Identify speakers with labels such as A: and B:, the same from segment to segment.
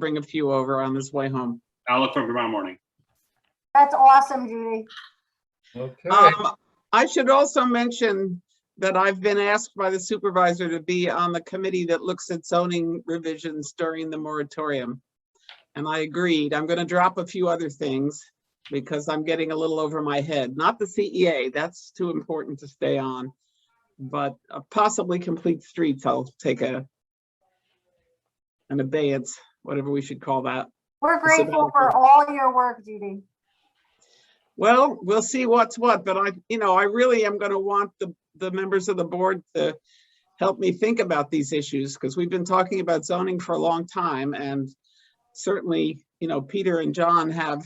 A: bring a few over on his way home.
B: I'll look for them tomorrow morning.
C: That's awesome, Judy.
D: Okay,
A: Um, I should also mention that I've been asked by the supervisor to be on the committee that looks at zoning revisions during the moratorium. And I agreed. I'm gonna drop a few other things because I'm getting a little over my head. Not the CEA, that's too important to stay on. But uh, possibly complete streets, I'll take a an abeyance, whatever we should call that.
C: We're
A: It's a
C: grateful for
A: benefit.
C: all your work, Judy.
A: Well, we'll see what's what, but I, you know, I really am gonna want the, the members of the board to help me think about these issues, because we've been talking about zoning for a long time, and certainly, you know, Peter and John have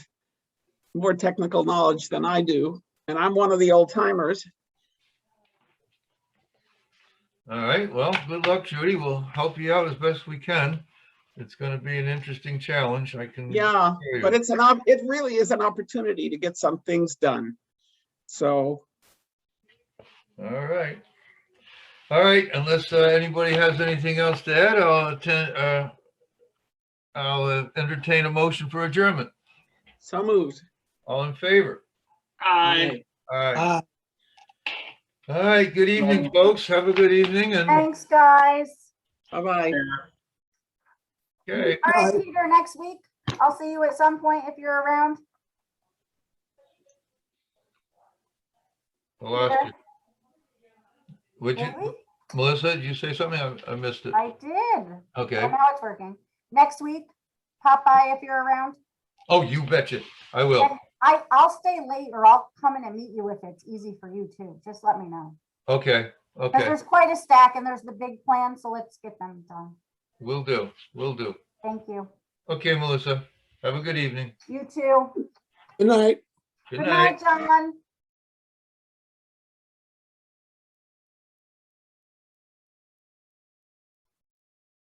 A: more technical knowledge than I do, and I'm one of the old timers.
D: all right, well, good luck, Judy. We'll help you out as best we can. It's gonna be an interesting challenge, I can.
A: Yeah,
D: assure you.
A: but it's an, op- it really is an opportunity to get some things done. So,
D: All right. All right, unless uh, anybody has anything else to add, I'll attend, uh, I'll uh, entertain a motion for adjournment.
A: so moved.
D: All in favor?
B: Hi.
D: All right. All right, good evening, folks. Have a good evening and,
C: Thanks, guys.
A: Bye-bye.
D: okay,
C: All right, Peter, next week. I'll see you at some point if you're around.
D: I lost you. Would you,
C: Really?
D: Melissa, did you say something? I- I missed it.
C: I did.
D: Okay.
C: Oh, Now it's working. Next week, pop by if you're around.
D: Oh, you betcha. I will.
C: I, I'll stay late or I'll come in and meet you if it's easy for you too. Just let me know.
D: Okay,
C: Because
D: okay.
C: there's quite a stack and there's the big plan, so let's get them done.
D: Will do, will do.
C: Thank you.
D: Okay, Melissa, have a good evening.
C: You too.
E: Good night.
D: Good
C: Good
D: night.
C: night, John.